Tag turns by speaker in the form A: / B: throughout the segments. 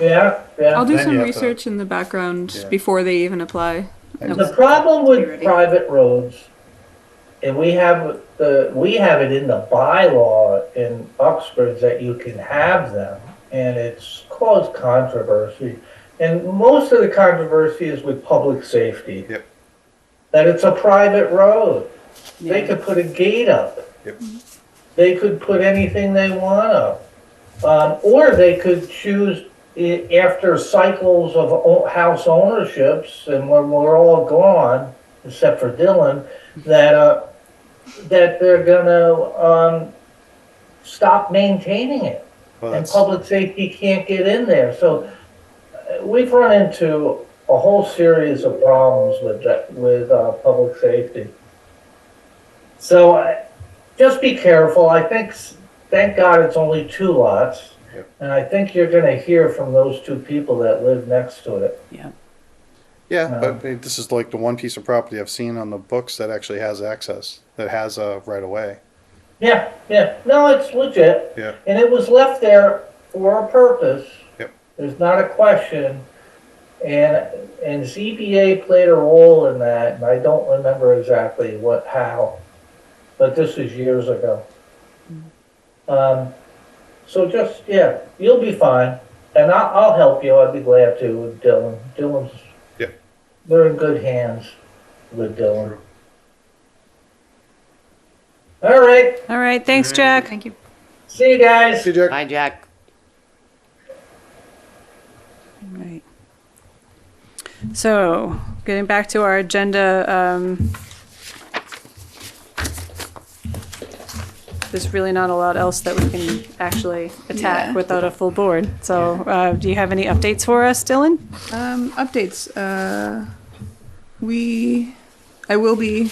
A: Yeah, yeah.
B: I'll do
C: Then
B: some
C: you have to-
B: research in the background
C: Yeah.
B: before they even apply.
C: And
A: The problem with private roads, and we have the, we have it in the bylaw in Oxford that you can have them, and it's caused controversy. And most of the controversy is with public safety.
C: Yep.
A: That it's a private road. They
B: Yeah.
A: could put a gate up.
C: Yep.
A: They could put anything they want up. Um, or they could choose i- after cycles of o- house ownerships and when we're all gone, except for Dylan, that, uh, that they're gonna, um, stop maintaining it.
C: Well,
A: And
C: that's,
A: public safety can't get in there. So uh, we've run into a whole series of problems with that, with, uh, public safety. So I- just be careful. I think, s- thank God it's only two lots.
C: Yep.
A: And I think you're gonna hear from those two people that live next to it.
C: yeah, but it- this is like the one piece of property I've seen on the books that actually has access, that has a right of way.
A: Yeah, yeah. No, it's legit.
C: Yeah.
A: And it was left there for a purpose.
C: Yep.
A: There's not a question. And, and ZBA played a role in that, and I don't remember exactly what, how, but this was years ago. Um, so just, yeah, you'll be fine, and I, I'll help you, I'd be glad to with Dylan. Dylan's,
C: Yep.
A: they're in good hands with Dylan. All right,
D: All right, thanks, Jack.
B: Thank you.
A: see you guys.
C: See, Jack?
E: Bye, Jack.
D: Right. So, getting back to our agenda, um, there's really not a lot else that we can actually
B: Yeah.
D: attack without a full board. So, uh, do you have any updates for us, Dylan?
B: Um, updates. Uh, we, I will be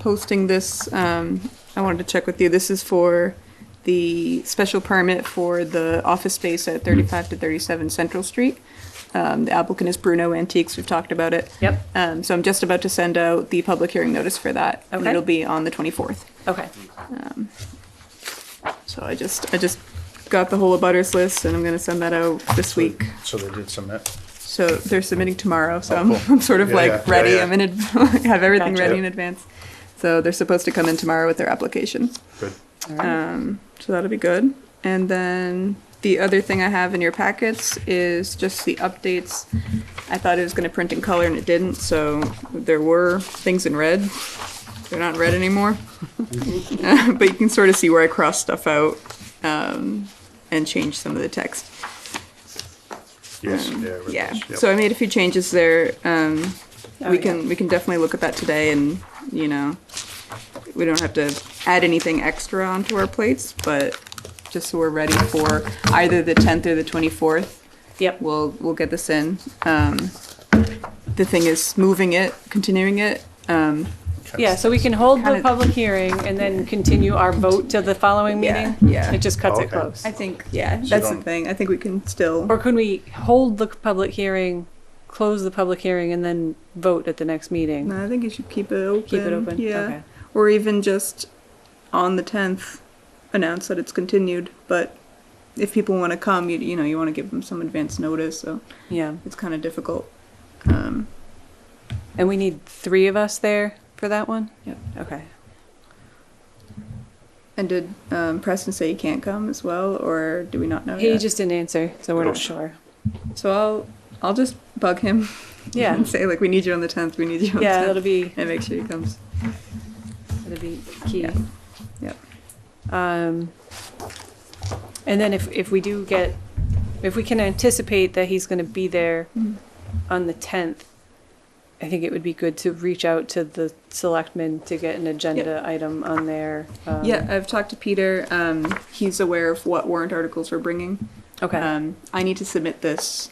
B: posting this. Um, I wanted to check with you. This is for the special permit for the office space at 35 to 37 Central Street. Um, the applicant is Bruno Antiques. We've talked about it.
D: Yep.
B: Um, so I'm just about to send out the public hearing notice for that. And
D: Okay.
B: it'll be on the 24th.
D: Okay.
B: So I just, I just got the whole abutters list and I'm gonna send that out this week.
C: So they did submit.
B: So they're submitting tomorrow, so
C: Oh,
B: I'm,
C: cool.
B: I'm sort of
C: Yeah, yeah,
B: like
C: yeah,
B: ready,
C: yeah.
B: I'm in, ad- I have everything
D: Gotcha.
B: ready in advance. So they're supposed to come in tomorrow with their application,
C: Good.
B: um, so that'll be good. And then the other thing I have in your packets is just the updates. I thought it was gonna print in color and it didn't, so there were things in red. They're not in red anymore. But you can sort of see where I crossed stuff out, um, and changed some of the text.
C: Yes, yeah. right,
B: Yeah,
C: yep.
B: so I made a few changes there. Um,
D: Oh,
B: we
D: yeah.
B: can, we can definitely look at that today and, you know, we don't have to add anything extra onto our plates, but just so we're ready for either the tenth or the twenty-fourth,
D: Yep.
B: we'll, we'll get this in. Um, the thing is moving it, continuing it, um,
D: Yeah, so we can hold the
B: Kinda-
D: public hearing and then continue our vote to the following
B: Yeah,
D: meeting?
B: yeah.
D: It just cuts
C: Oh,
D: it
C: okay.
D: close.
B: I think, yeah,
C: So
B: that's the
C: don't-
B: thing. I think we can still,
D: Or can we hold the public hearing, close the public hearing, and then vote at the next meeting?
B: no, I think you should keep it open.
D: Keep it open?
B: Yeah,
D: Okay.
B: or even just on the tenth announce that it's continued. But if people want to come, you you know you want to give them some advance notice, so
D: Yeah,
B: it's kind of difficult. Um,
D: and we need three of us there for that one?
B: Yep.
D: Okay.
B: and did um, Preston say he can't come as well, or do we not know
D: He
B: yet?
D: just didn't answer, so we're not sure.
B: so I'll I'll just bug him.
D: Yeah.
B: and say like we need you on the tenth. We need you on
D: Yeah,
B: the
D: that'll
B: tenth,
D: be,
B: and make sure he comes.
D: that'll be key.
B: Yeah. Yep.
D: Um, and then if, if we do get, if we can anticipate that he's gonna be there
B: Mhm.
D: on the tenth, I think it would be good to reach out to the selectmen to get an agenda item on there. um,
B: yeah, I've talked to Peter. Um, he's aware of what warrant articles we're bringing.
D: Okay,
B: Um, I need to submit this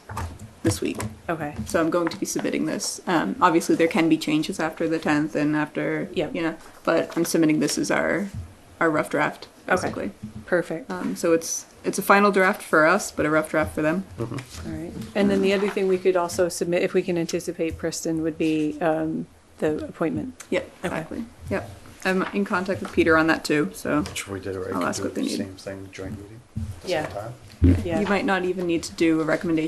B: this week.
D: okay,
B: So I'm going to be submitting this. Um, obviously, there can be changes after the 10th and after,
D: Yeah.
B: you know, but I'm submitting this as our our rough draft,
D: Okay.
B: basically.
D: perfect,
B: Um, so it's it's a final draft for us, but a rough draft for them.
D: all right. And then the other thing we could also submit, if we can anticipate Preston, would be, um, the appointment.
B: Yep,
D: Okay.
B: exactly. Yep. I'm in contact with Peter on that too, so
C: Which we did already.
B: I'll
C: Could
B: ask
C: do
B: what they need.
C: Same thing, joint meeting, at the
D: Yeah.
C: same time.
D: Yeah.
B: you might not even need to do a recommendation.